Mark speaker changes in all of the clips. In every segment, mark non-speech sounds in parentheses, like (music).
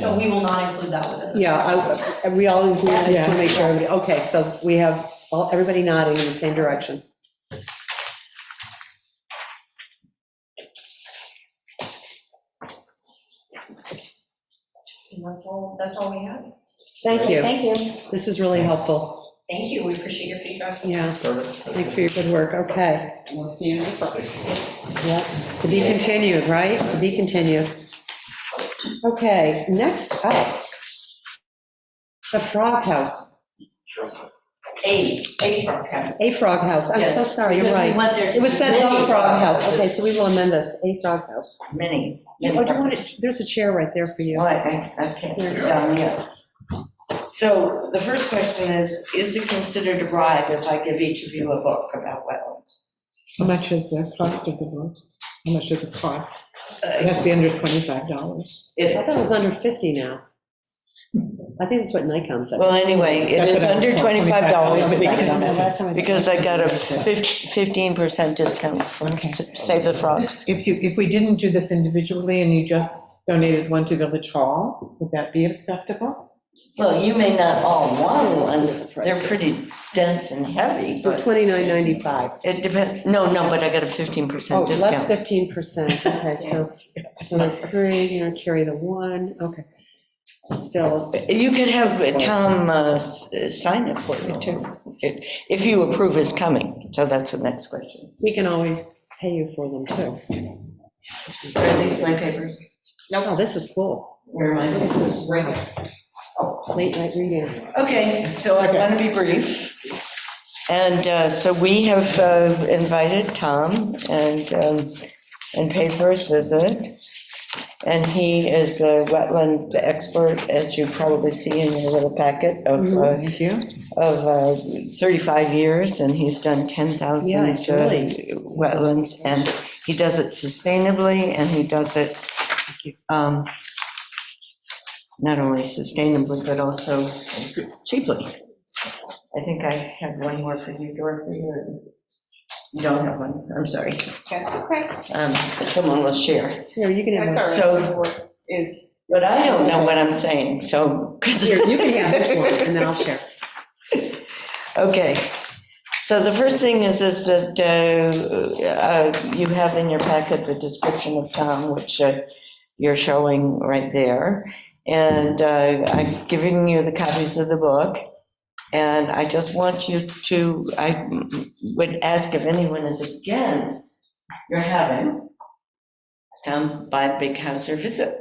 Speaker 1: So we will not include that within this.
Speaker 2: Yeah,
Speaker 1: document.
Speaker 2: I, we all include, I just want to make sure
Speaker 1: Yeah.
Speaker 2: everybody, okay, so we have, all everybody nodding in the same direction.
Speaker 1: And that's all, that's all we have.
Speaker 2: Thank you.
Speaker 3: Thank you.
Speaker 2: This is really helpful.
Speaker 1: Thank you, we appreciate your feedback.
Speaker 2: Yeah, thanks for your good work. Okay.
Speaker 3: We'll see you in April.
Speaker 2: Yep. To be continued, right? To be continued. Okay, next up, the Frog House,
Speaker 4: A, A frog house.
Speaker 2: A Frog House. I'm so
Speaker 4: Yes.
Speaker 2: sorry, you're
Speaker 4: Because we
Speaker 2: right.
Speaker 4: want there to
Speaker 2: It was
Speaker 4: be
Speaker 2: said
Speaker 4: many
Speaker 2: A Frog House. Okay, so we will amend this, A Frog House.
Speaker 4: Many.
Speaker 2: Oh,
Speaker 4: many
Speaker 2: do you
Speaker 4: frog
Speaker 2: want
Speaker 4: houses.
Speaker 2: to, there's a chair right there for you.
Speaker 4: Well, I, I I can't sit down yet. So the first question is, is it considered a bribe if I give each of you a book about wetlands?
Speaker 5: How much is the cost of the book? How much does it cost? It has to be under $25.
Speaker 4: It
Speaker 2: I thought it
Speaker 4: is.
Speaker 2: was under 50 now. I think that's what Nikon said.
Speaker 4: Well, anyway, it
Speaker 5: That's
Speaker 4: is
Speaker 5: what I-
Speaker 4: under $25 because-
Speaker 5: Last time I-
Speaker 4: because I got a fif- 15% discount from S- Save the Frogs.
Speaker 5: If you, if we didn't do this individually and you just donated one to Village Hall, would that be acceptable?
Speaker 4: Well, you may not all want one. They're pretty dense and heavy,
Speaker 2: For
Speaker 4: but
Speaker 2: 29.95.
Speaker 4: it depends. No, no, but I got a 15%
Speaker 2: Oh,
Speaker 4: discount.
Speaker 2: less 15%, okay,
Speaker 4: (laughs)
Speaker 2: so, so that's three, you know, carry the one, okay. Still,
Speaker 4: You could have Tom uh, s- sign it for you, too, if if you approve his coming. So that's the next question.
Speaker 2: we can always pay you for them too.
Speaker 4: Are these my papers?
Speaker 2: Oh, this is cool,
Speaker 4: Where Oh. am
Speaker 2: late night reading.
Speaker 4: I? Okay, so I want to be brief. And uh, so we have uh, invited Tom and, um, and paid for his visit. And he is a wetland expert, as you probably see in your little packet of,
Speaker 2: Mm-hmm.
Speaker 4: uh,
Speaker 5: Thank you.
Speaker 4: of uh, 35 years, and he's done 10,000
Speaker 2: Yeah, it's really-
Speaker 4: uh, wetlands, and he does it sustainably, and he does it um, not only sustainably, but also cheaply. I think I had one more for you, Dorothy, or you don't have one, I'm sorry.
Speaker 6: That's okay.
Speaker 4: Um, Someone will share.
Speaker 2: Here, you can have,
Speaker 6: That's
Speaker 2: one.
Speaker 6: all right. So. Is,
Speaker 4: But I don't know what I'm saying, so.
Speaker 2: here, you can have this one, and then I'll share.
Speaker 4: Okay, so the first thing is, is that uh, uh, you have in your packet the description of Tom, which uh, you're showing right there. And uh, I'm giving you the copies of the book. And I just want you to, I would ask if anyone is against your having Tom by Big Hauser visit.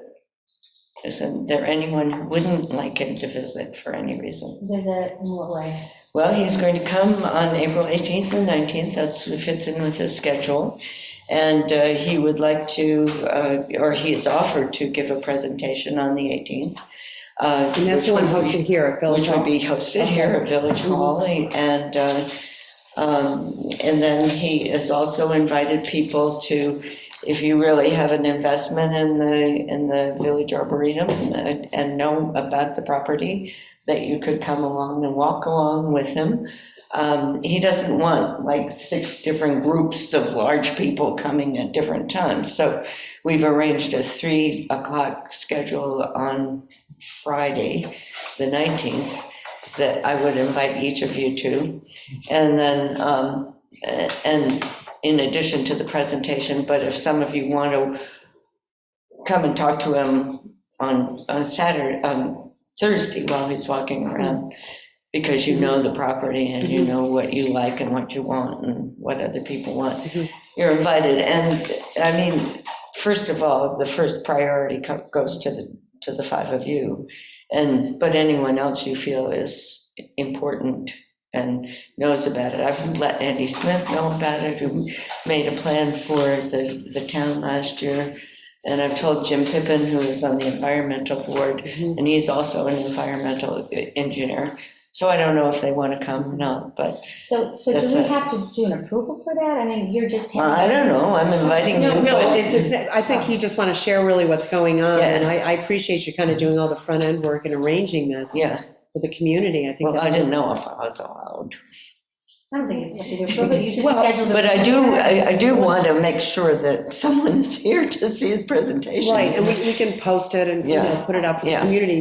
Speaker 4: Isn't there anyone who wouldn't like him to visit for any reason?
Speaker 3: Visit in what way?
Speaker 4: Well, he's going to come on April 18th and 19th, that's, it fits in with his schedule. And uh, he would like to, uh, or he has offered to give a presentation on the 18th. uh,
Speaker 2: And that's the one
Speaker 4: which would be-
Speaker 2: hosted here at Village
Speaker 4: Which would
Speaker 2: Hall.
Speaker 4: be hosted here at Village Hall. And, uh, um, and then he has also invited people to, if you really have an investment in the, in the Village Arboretum and and know about the property, that you could come along and walk along with him. Um, He doesn't want like six different groups of large people coming at different times. So we've arranged a three o'clock schedule on Friday, the 19th, that I would invite each of you to. And then, um, a- and in addition to the presentation, but if some of you want to come and talk to him on, on Saturday, on Thursday while he's walking around, because you know the property and you know what you like and what you want and what other people want,
Speaker 2: Mhm.
Speaker 4: you're invited. And, I mean, first of all, the first priority co- goes to the, to the five of you. And, but anyone else you feel is important and knows about it. I've let Andy Smith know about it, who made a plan for the, the town last year. And I've told Jim Pippin, who is on the environmental board,
Speaker 2: Mhm.
Speaker 4: and he's also an environmental e, engineer. So I don't know if they want to come or not, but
Speaker 3: So, so
Speaker 4: That's
Speaker 3: do we
Speaker 4: it.
Speaker 3: have to do an approval for that? I mean, you're just.
Speaker 4: well, I
Speaker 3: handing-
Speaker 4: don't know. I'm inviting you.
Speaker 2: No, no,
Speaker 4: but-
Speaker 2: it- it's- I think you just want to share really what's going on,
Speaker 4: Yeah.
Speaker 2: and I, I appreciate you kind of doing all the front end work and arranging this
Speaker 4: Yeah,
Speaker 2: for the community, I think.
Speaker 4: well, I
Speaker 2: that's-
Speaker 4: didn't know if I was allowed.
Speaker 3: I don't think you have to approve it, you just
Speaker 4: Well,
Speaker 3: schedule the.
Speaker 4: But I do, I I do want to make sure that (laughs) someone is here to see his presentation.
Speaker 2: Right, and we, we can post it and, you know,
Speaker 4: Yeah.
Speaker 2: put it out for the
Speaker 4: Yeah.
Speaker 2: community,